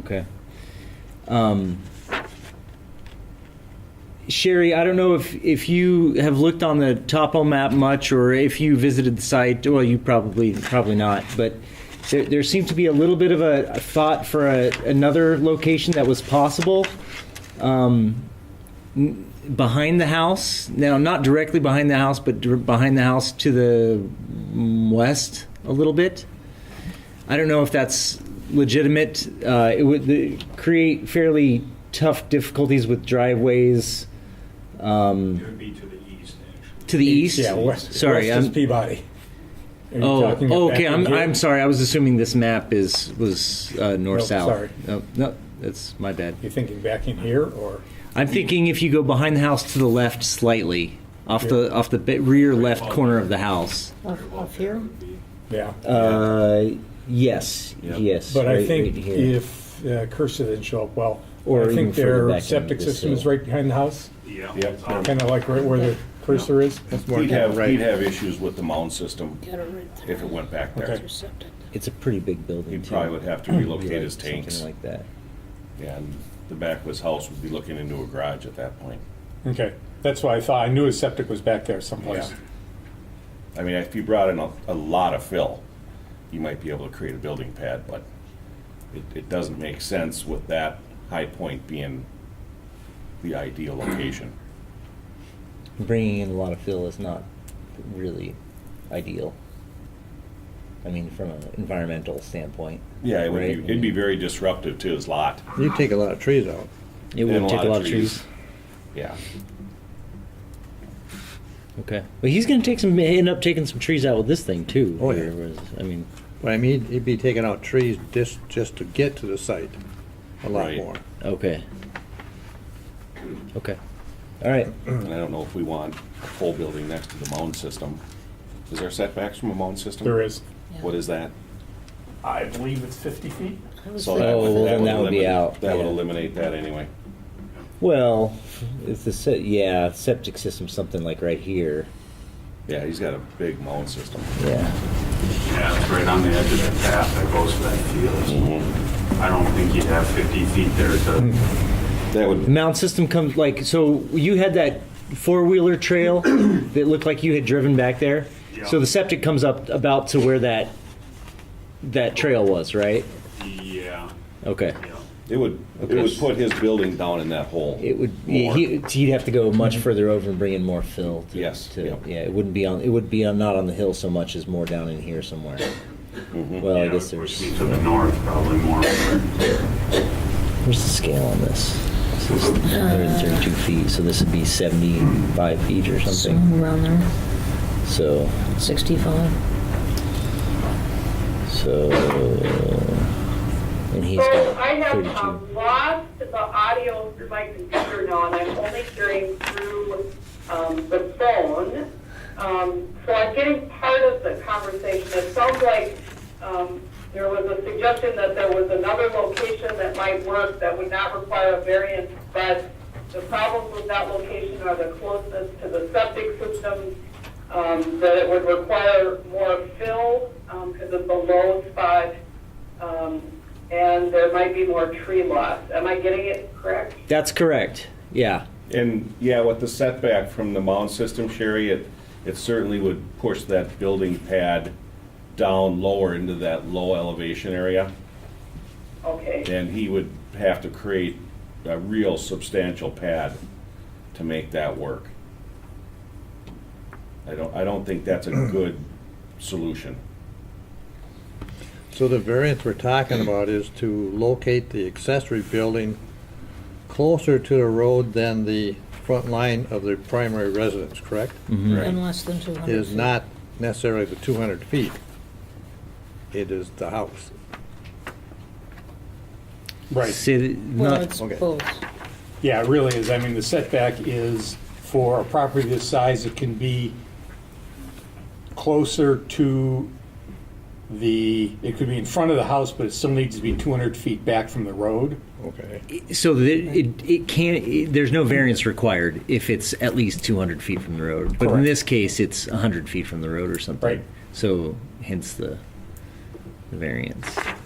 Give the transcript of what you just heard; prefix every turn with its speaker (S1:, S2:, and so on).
S1: Okay. Um, Sherry, I don't know if, if you have looked on the topo map much or if you visited the site. Well, you probably probably not, but there, there seemed to be a little bit of a, a thought for a, another location that was possible um, n- behind the house. Now, not directly behind the house, but dir- behind the house to the mm, west a little bit. I don't know if that's legitimate. Uh, it would the, create fairly tough difficulties with driveways
S2: It
S1: um,
S2: would be to the east, actually.
S1: to the east.
S3: Yeah, west.
S1: Sorry,
S3: west is
S1: I'm-
S3: Peabody. Are you
S1: Oh,
S3: talking
S1: oh,
S3: back
S1: okay. I'm,
S3: in here?
S1: I'm sorry. I was assuming this map is was uh, north
S3: Nope,
S1: south.
S3: sorry.
S1: No, no, that's my bad.
S3: You thinking back in here or?
S1: I'm thinking if you go behind the house to the left slightly, off the off the bit rear left corner of the house.
S4: Of, of here?
S3: Yeah.
S1: Uh, yes,
S5: Yeah.
S1: yes.
S3: But I
S1: right-
S3: think
S1: right here.
S3: if uh, Cursor didn't show up well,
S1: Or
S3: I
S1: even
S3: think
S1: further back
S3: their
S1: in
S3: septic
S1: this
S3: system is
S1: hill.
S3: right behind the house,
S2: Yeah.
S5: Yeah.
S2: Um,
S3: kind of like right where the cursor is.
S5: He'd have, he'd have issues with the mound system
S4: Got it right there.
S5: if it went back there.
S3: Okay.
S4: Septic.
S1: it's a pretty big building.
S5: He
S1: too.
S5: probably would have to
S1: Yeah,
S5: relocate his
S1: something
S5: tanks,
S1: like that.
S5: and the back of his house would be looking into a garage at that point.
S3: Okay, that's why I thought, I knew his septic was back there someplace.
S5: Yeah. I mean, if you brought in a, a lot of fill, you might be able to create a building pad, but it, it doesn't make sense with that high point being the ideal location.
S1: Bringing in a lot of fill is not really ideal. I mean, from an environmental standpoint.
S5: Yeah, it would
S1: Right.
S5: be, it'd be very disruptive to his lot.
S6: You take a lot of trees out.
S1: It
S5: And
S1: would take a lot of trees.
S5: Yeah.
S1: Okay. But he's going to take some end up taking some trees out with this thing too.
S6: Oh, yeah.
S1: Or was- I mean,
S6: But I mean, he'd be taking out trees just, just to get to the site, a lot
S5: Right.
S6: more.
S1: okay. Okay. All right.
S5: And I don't know if we want a full building next to the mound system. Is there setbacks from a mound system?
S3: There is.
S5: What is that?
S2: I believe it's 50 feet.
S4: I was
S5: So
S4: thinking-
S5: that
S1: Oh,
S5: would-
S1: well, then that would be
S5: eliminate-
S1: out,
S5: That would
S1: yeah.
S5: eliminate that anyway.
S1: Well, it's the se- yeah septic system something like right here.
S5: Yeah, he's got a big mound system.
S1: Yeah.
S2: Yeah, it's right on the edge of that path that goes to that field.
S1: Mm-hmm.
S2: I don't think you'd have 50 feet there to,
S5: That
S1: The
S5: would,
S1: mound system comes like so. You had that four wheeler trail that looked like you had driven back there.
S2: Yeah.
S1: So the septic comes up about to where that that trail was, right?
S2: yeah,
S1: Okay.
S2: yeah.
S5: it would, it would put his building down in that hole.
S1: It would. He,
S5: More. Mm-hmm.
S1: he- he'd have to go much further over and bring in more fill. To,
S5: Yes,
S1: To,
S5: yep.
S1: Yeah. It wouldn't be on. It would be on not on the hill so much as more down in here somewhere.
S5: Mm-hmm.
S1: Well, I
S2: Yeah,
S1: guess
S2: it would
S1: there's.
S2: be To the north, probably more.
S1: Where's the scale on this? This is 132 feet, so this would be 75 feet or something.
S4: Somewhere around there,
S1: So,
S4: sixty-five.
S1: so, and he's
S7: So I
S1: got
S7: have
S1: 32.
S7: um, lost the audio through my computer now, and I'm only hearing through um, the phone. Um, So I'm getting part of the conversation. It sounds like um, there was a suggestion that there was another location that might work that would not require a variance, but the problems with that location are the closeness to the septic system, um, that it would require more fill um, because of the low spot, um, and there might be more tree loss. Am I getting it correct?
S1: That's correct. Yeah.
S5: And, yeah, with the setback from the mound system, Sherry, it, it certainly would push that building pad down lower into that low elevation area.
S7: Okay,
S5: And he would have to create a real substantial pad to make that work. I don't, I don't think that's a good solution.
S6: So the variance we're talking about is to locate the accessory building closer to the road than the front line of the primary residence, correct?
S4: And less than two hundred.
S6: It is not necessarily the 200 feet. It is the house.
S3: Right,
S1: See, th-
S4: Well,
S1: not,
S4: it's
S6: okay.
S4: both.
S3: yeah, it really is. I mean, the setback is for a property this size, it can be closer to the, it could be in front of the house, but it still needs to be 200 feet back from the road.
S6: Okay.
S1: so that it, it can't, it- there's no variance required if it's at least 200 feet from the road. But in
S3: Correct.
S1: this case, it's 100 feet from the road or something.
S3: Right.
S1: So hence the, the variance.